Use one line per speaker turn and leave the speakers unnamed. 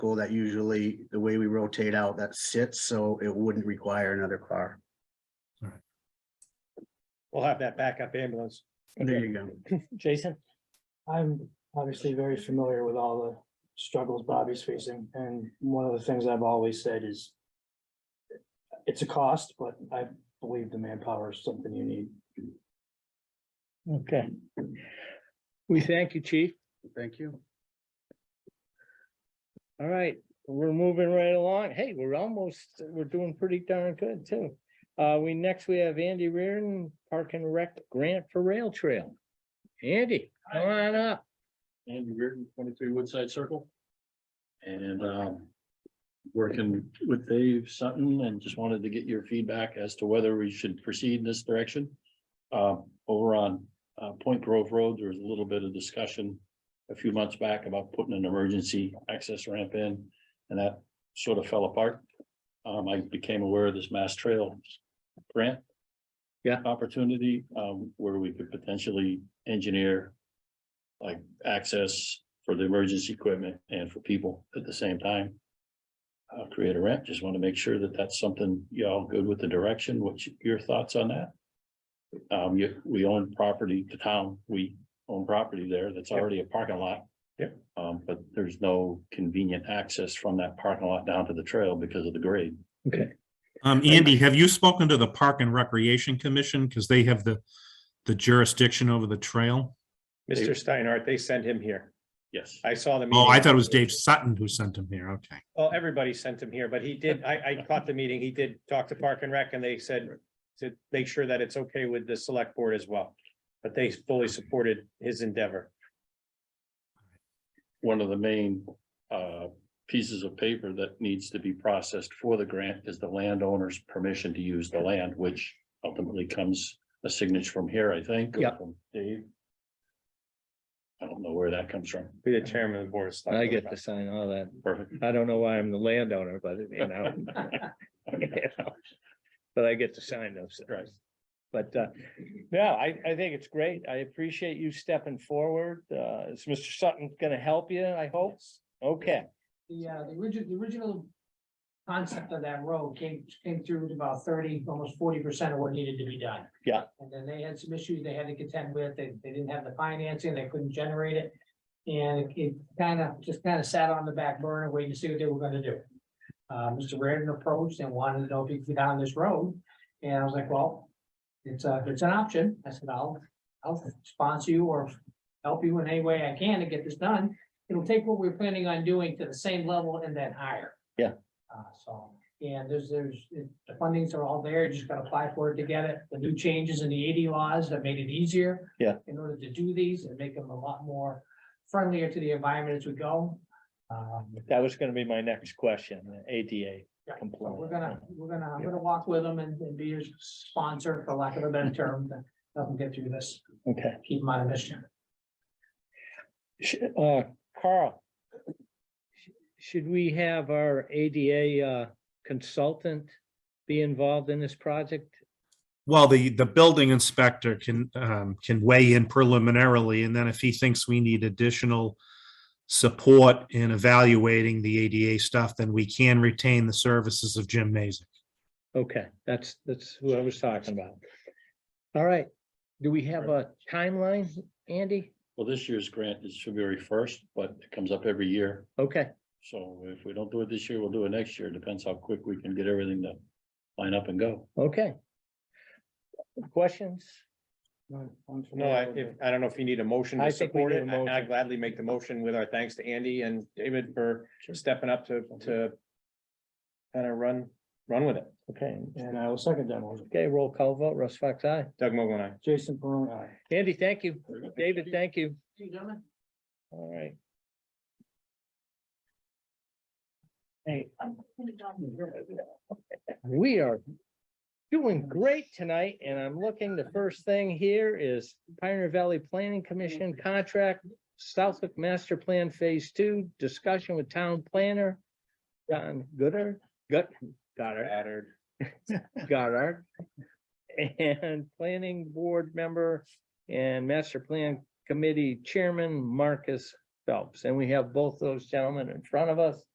vehicle that usually, the way we rotate out, that sits, so it wouldn't require another car.
We'll have that backup ambulance.
There you go.
Jason?
I'm obviously very familiar with all the struggles Bobby's facing, and one of the things I've always said is. It's a cost, but I believe the manpower is something you need.
Okay. We thank you, chief.
Thank you.
All right, we're moving right along. Hey, we're almost, we're doing pretty darn good too. Uh, we, next we have Andy Reardon, Park and Rec Grant for Rail Trail. Andy, come on up.
Andy Reardon, twenty-three Woodside Circle. And um, working with Dave Sutton and just wanted to get your feedback as to whether we should proceed in this direction. Um, over on uh, Point Grove Road, there was a little bit of discussion a few months back about putting an emergency access ramp in, and that sort of fell apart. Um, I became aware of this Mass Trail grant.
Yeah.
Opportunity, um, where we could potentially engineer like access for the emergency equipment and for people at the same time. Uh, create a ramp, just want to make sure that that's something y'all good with the direction, what's your thoughts on that? Um, you, we own property, the town, we own property there that's already a parking lot.
Yep.
Um, but there's no convenient access from that parking lot down to the trail because of the grade.
Okay.
Um, Andy, have you spoken to the Park and Recreation Commission? Because they have the, the jurisdiction over the trail.
Mr. Steinhardt, they sent him here.
Yes.
I saw the.
Oh, I
meeting.
thought it was Dave Sutton who sent him here. Okay.
Well, everybody sent him here, but he did, I, I caught the meeting. He did talk to Park and Rec and they said to make sure that it's okay with the select board as well. But they fully supported his endeavor.
one of the main uh pieces of paper that needs to be processed for the grant is the landowner's permission to use the land, which ultimately comes a signature from here, I think. or
Yeah.
from Dave. I don't know where that comes from.
Be the chairman of the board. of Selectmen.
I get to sign all that.
Perfect.
I don't know why I'm the landowner, but you know. But I get to sign those.
Right.
But uh, no, I I think it's great. I appreciate you stepping forward. Uh, is Mr. Sutton gonna help you, I hope? Okay,
The, uh, the original, the original concept of that road came, came through to about thirty, almost forty percent of what needed to be done.
Yeah.
And then they had some issues they had to contend with, they, they didn't have the financing, they couldn't generate it. And it kind of, just kind of sat on the back burner, waiting to see what they were gonna do. Uh, Mr. Reardon approached and wanted to know if he could get down this road, and I was like, well, it's a, it's an option, I said, I'll, I'll sponsor you or help you in any way I can to get this done it'll take what we're planning on doing to the same level and then higher.
Yeah.
Uh, so, and there's, there's, the fundings are all there, you just gotta apply for it to get it. The new changes in the eighty laws have made it easier.
Yeah.
In order to do these and make them a lot more friendlier to the environment as we go. Um,
that was gonna be my next question, the ADA
Right,
compliant.
but We're gonna, we're gonna, I'm gonna walk with them and, and be your sponsor, for lack of a better term, to help them get through this,
Okay,
keep them out of mischief.
Sh- uh, Carl. sh- Should we have our ADA uh, consultant be involved in this project?
Well, the, the building inspector can, um, can weigh in preliminarily, and then if he thinks we need additional support in evaluating the ADA stuff, then we can retain the services of Jim Mason.
Okay, that's, that's who I was talking about. All right, do we have a timeline, Andy?
Well, this year's grant is February first, but it comes up every year.
Okay,
So if we don't do it this year, we'll do it next year. Depends how quick we can get everything to line up and go.
okay. Questions?
No, I, if, I don't know if you need a motion to
I think we
support
need a
it. I- I
motion.
gladly make the motion with our thanks to Andy and David for stepping up to, to kind of run, run with it.
Okay,
And I will second that motion.
okay, roll call vote, Russ Fox, aye.
Doug Mogul and I.
Jason Peron, aye.
Andy, thank you. David, thank you.
You gentlemen?
All right.
嗯
We are doing great tonight, and I'm looking, the first thing here is Pioneer Valley Planning Commission contract, Southwick Master Plan Phase Two, discussion with town planner, John Gooder, Gut, Goddard,
Goddard.
Goddard, and Planning Board Member and Master Plan Committee Chairman Marcus Phelps, and we have both those gentlemen in front of us.